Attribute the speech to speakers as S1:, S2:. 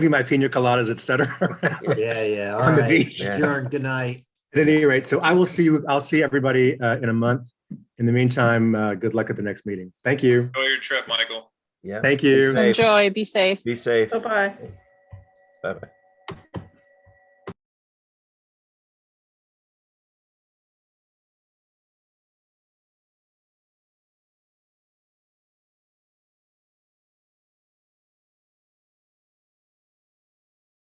S1: be my pina coladas, et cetera.
S2: Yeah, yeah. all
S1: On the
S2: right.
S1: beach.
S3: Yeah.
S2: Sure, good night.
S1: At any rate, so I will see you, I'll see everybody uh, in a month. In the meantime, uh, good luck at the next meeting. Thank you.
S4: Enjoy your trip, Michael.
S3: Yeah.
S1: Thank
S3: Be
S1: you.
S3: safe.
S5: Enjoy, be safe.
S3: Be safe.
S6: Bye-bye.
S3: Bye-bye.